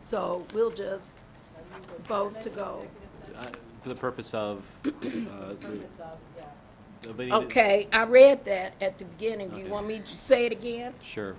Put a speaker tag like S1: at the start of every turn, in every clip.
S1: So we'll just vote to go.
S2: Uh, For the purpose of, uh, the- nobody-
S1: Okay, I read that at the beginning. Do you
S2: Okay.
S1: want me to say it again?
S2: Sure.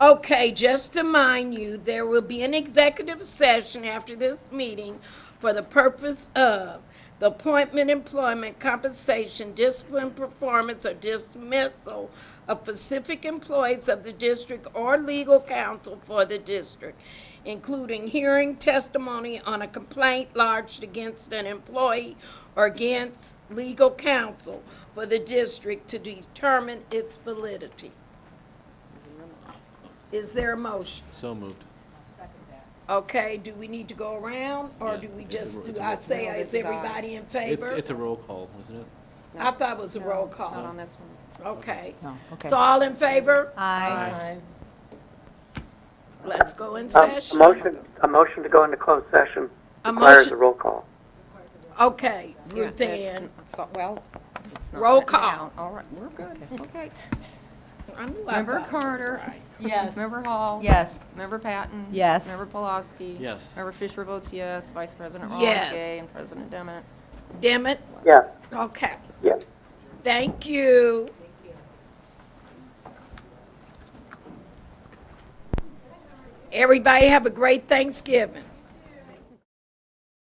S1: Okay, just to mind you, there will be an executive session after this meeting for the purpose of the appointment, employment, compensation, discipline, performance, or dismissal of specific employees of the district or legal counsel for the district, including hearing testimony on a complaint lodged against an employee or against legal counsel for the district to determine its validity. Is there a motion?
S2: So moved.
S1: Okay, do we need to go around, or
S2: Yeah,
S1: do we
S2: it's a
S1: just,
S2: ro-
S1: do
S2: it's a
S1: I
S2: roll
S3: No,
S1: say,
S3: this
S1: is
S3: is ours.
S1: everybody in
S2: It's,
S1: favor?
S2: it's a roll call, wasn't it?
S1: I thought it was a roll
S3: Not on
S1: call.
S3: this one.
S1: Okay.
S4: No, okay.
S1: So all in favor?
S2: Aye.
S1: Let's go in
S5: Um, A
S1: session.
S5: motion, a motion to go into closed session
S1: A
S5: requires a
S1: motion-
S5: roll call.
S1: Okay,
S3: Yeah,
S1: Ruth
S3: that's-
S1: Ann,
S3: so- Well, it's not.
S1: Roll
S3: written
S1: call.
S3: down. All right, we're good, okay.
S1: I knew I
S3: Member
S1: thought-
S3: Carter.
S1: Yes.
S3: Member Hall.
S4: Yes.
S3: Member Patton.
S4: Yes.
S3: Member Pulaski.
S2: Yes.
S3: Member Fisher votes yes, Vice President
S1: Yes.
S3: Romansky and President Demmett.
S1: Damn it,
S5: Yeah,
S1: okay,
S5: yeah.
S1: thank you. Everybody have a great Thanksgiving.